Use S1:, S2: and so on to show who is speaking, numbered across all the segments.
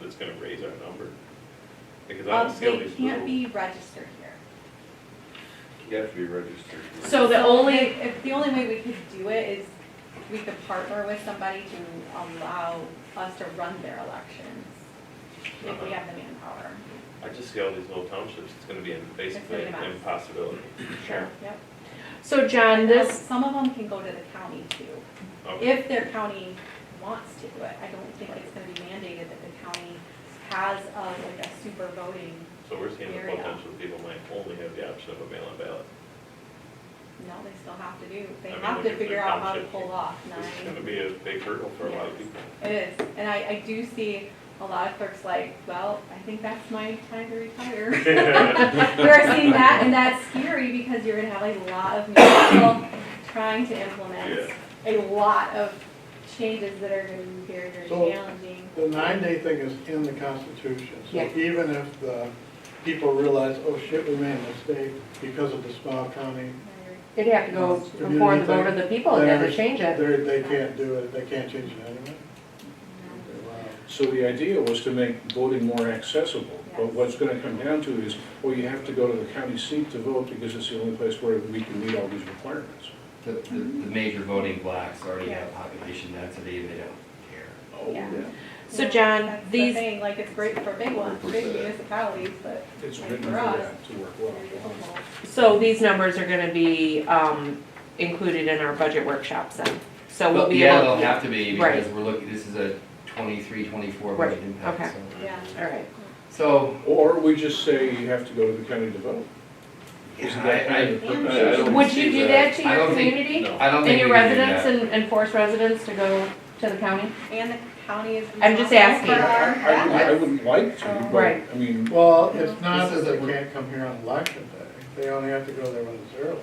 S1: that's gonna raise our number. Because I
S2: Um,
S1: don't see all
S2: they
S1: these
S2: can't
S1: little.
S2: be registered here.
S3: You have to be registered.
S4: So the only-
S2: if- If, the only way we could do it is we could partner with somebody to allow us to run their elections, if we have the manpower.
S1: I just see all these little townships, it's gonna be in- basically
S2: It's
S1: an
S2: gonna be a mess.
S1: impossibility.
S4: Sure.
S2: Yep.
S4: So John,
S2: And
S4: this,
S2: Some of them can go to the county too.
S1: Okay.
S2: if their county wants to do it. I don't think it's gonna be mandated that the county has a, like a super voting,
S1: So we're seeing the
S2: Area.
S1: potential people might only have the option of a mail-in ballot.
S2: no, they still have to do, they
S1: I mean,
S2: have
S1: look
S2: to
S1: at the
S2: figure out how to
S1: township.
S2: pull off
S1: This is gonna
S2: nine.
S1: be a big hurdle for a lot of
S2: Yes.
S1: people.
S2: It is, and I, I do see a lot of clerks like, well, I think that's my time to retire. We're seeing that, and that's scary because you're gonna have a lot of new people trying to implement a lot of changes that are gonna be very, very
S5: So-
S2: challenging.
S5: The nine-day thing is in the Constitution, so
S4: Yeah.
S5: even if the people realize, oh shit, we made a mistake because of the small county,
S4: it'd have to go before the vote of the people, they'd have to change
S5: they,
S4: it.
S5: they can't do it, they can't change it anyway. Okay, wow.
S6: So the idea was to make voting more accessible, but what's gonna come down to is, well, you have to go to the county seat to vote because it's the only place where we can meet all these requirements.
S7: The, the, the major voting blocks already have population density and they don't care.
S6: Oh,
S2: Yeah.
S4: So,
S2: Yeah,
S4: John,
S2: that's the
S4: these-
S2: thing, Like, it's great for big ones, big
S3: 100%.
S2: municipalities, but.
S6: It's
S2: like
S6: written for
S2: for us,
S6: that to work well.
S2: very difficult.
S4: So these numbers are gonna be, um, included in our budget workshops then, so we'll
S7: But
S4: be
S7: Yeah,
S4: able.
S7: they'll have to be
S4: Right.
S7: because we're looking, this is a twenty-three, twenty-four
S4: Right,
S7: budget
S4: okay.
S7: impact, so.
S2: Yeah,
S4: Alright,
S7: So,
S6: Or we just say you have to go to the county to vote. Isn't
S7: I-
S6: that kind of-
S2: I-
S6: I- I don't
S4: would
S6: see
S4: you do that to
S7: uh, I
S4: your
S7: don't think-
S4: community?
S1: no.
S7: I don't
S4: And
S7: think we
S4: your
S7: can do
S4: residents
S7: that.
S4: and, and force residents to go to the county?
S2: and the county is.
S4: I'm just
S2: responsible
S4: asking.
S2: for our
S6: I would- I
S2: ballots.
S6: wouldn't like to, but,
S4: Right.
S6: I mean,
S5: Well, it's not
S7: This
S5: that
S7: is
S5: they
S7: a-
S5: can't come here on election day, they only have to go there when it's early, right?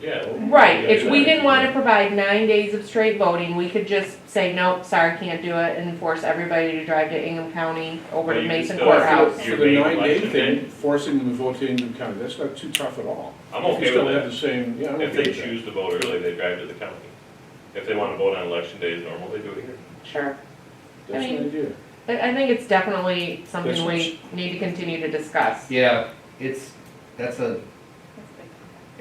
S1: Yeah,
S4: Right, if we didn't wanna provide nine days of straight voting, we could just say, nope, sorry, can't do it, and force everybody to drive to Ingham County over
S1: But
S4: to
S1: you can
S4: Mason
S1: still have
S4: Courthouse.
S1: Your
S6: for the
S1: main
S6: nine-day
S1: election
S6: thing, forcing them to vote in the county, that's not too tough at all.
S1: I'm
S6: You
S1: okay
S6: still
S1: with
S6: have
S1: that.
S6: the same, yeah, I'm
S1: If
S6: okay
S1: they
S6: with that.
S1: choose to vote early, they drive to the county. If they wanna vote on election day as normal, they do it here.
S4: Sure,
S6: That's
S4: I
S6: the
S4: mean-
S6: idea.
S4: I, I think it's definitely something
S6: That's
S4: we need to continue to discuss.
S7: yeah, it's, that's a,
S2: That's big.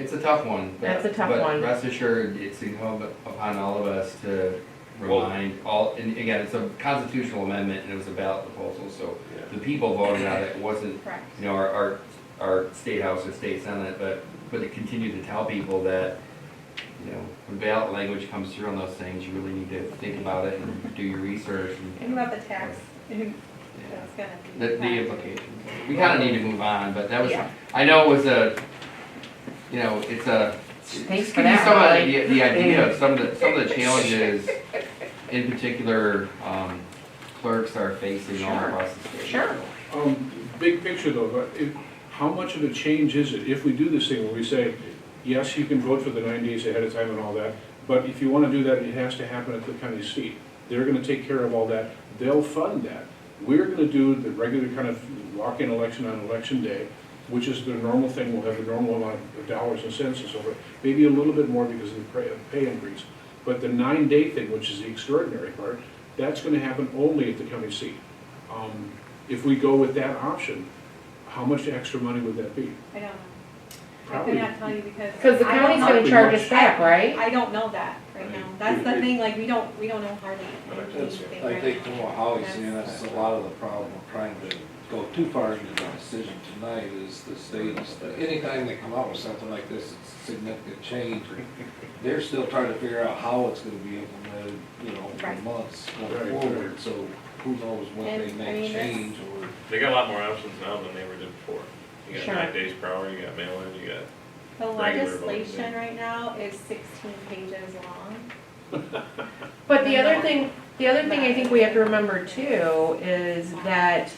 S7: it's a tough one. but-
S4: That's a tough one.
S7: But rest assured, it's incumbent upon all of us to
S1: Well-
S7: remind all, and again, it's a constitutional amendment and it was a ballot proposal, so the people voted on it, it wasn't
S2: Correct.
S7: you know, our, our, our state house or state senate, but, but to continue to tell people that, you know, when ballot language comes through on those things, you really need to think about it and do your research and,
S2: Think about the tax, and
S7: yeah,
S2: that's gonna be.
S7: the, the implications. We kinda need to move on, but that was,
S4: Yeah.
S7: I know it was a, you know, it's a,
S4: Thanks
S7: just
S4: for
S7: give you
S4: that,
S7: some of
S4: Molly.
S7: the, idea- the idea of some of the, some of the challenges, in particular, um, clerks are facing all
S4: Sure.
S7: across the state.
S4: Sure.
S6: Um, big picture though, but if, how much of a change is it if we do this thing where we say, yes, you can vote for the nine days ahead of time and all that, but if you wanna do that, it has to happen at the county seat. They're gonna take care of all that, they'll fund that. We're gonna do the regular kind of walk-in election on election day, which is the normal thing, we'll have the normal amount of dollars and cents and so forth, maybe a little bit more because of the pay- pay increase. But the nine-day thing, which is the extraordinary part, that's gonna happen only at the county seat. Um, If we go with that option, how much extra money would that be?
S2: I don't know, I could
S6: Probably.
S2: not tell you because.
S4: Cause the
S2: I don't
S4: county's
S2: know.
S4: gonna charge us back, right?
S2: I don't know that right now, that's the thing, like, we don't, we don't know hardly anything
S3: I
S2: right
S3: think
S2: now.
S3: what Holly's saying, that's a lot of the problem, of trying to go too far into the decision tonight is the state, is that anytime they come out with something like this, it's a significant change. They're still trying to figure out how it's gonna be implemented, you know, for
S2: Right.
S3: months
S6: Right,
S3: going forward, so who knows when they
S2: And, I
S3: may
S2: mean, that's-
S3: change or.
S1: They got a lot more options now than they were did before. You got
S4: Sure.
S1: nine days per hour, you got mail-in, you got
S2: The
S1: Regular voting day.
S2: legislation right now is sixteen pages long.
S4: But the other thing, the other thing I think we have to remember too is that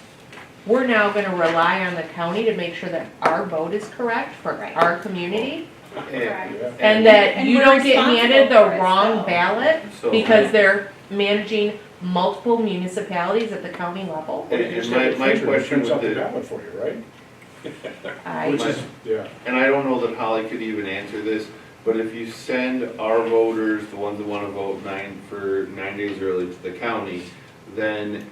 S4: we're now gonna rely on the county to make sure that our vote is correct for
S2: Right.
S4: our community.
S2: Correct.
S4: And that
S2: And
S4: you
S2: we're
S4: don't get handed
S2: responsible for
S4: the
S2: it,
S4: wrong
S2: so.
S4: ballot
S3: So-
S4: because they're managing multiple municipalities at the county level.
S3: And- and my- my question
S6: Turns
S3: with
S6: out the
S3: the-
S6: ballot for you, right?
S4: I,
S6: Which is, yeah.
S3: And I don't know that Holly could even answer this, but if you send our voters, the ones that wanna vote nine, for nine days early to the county, then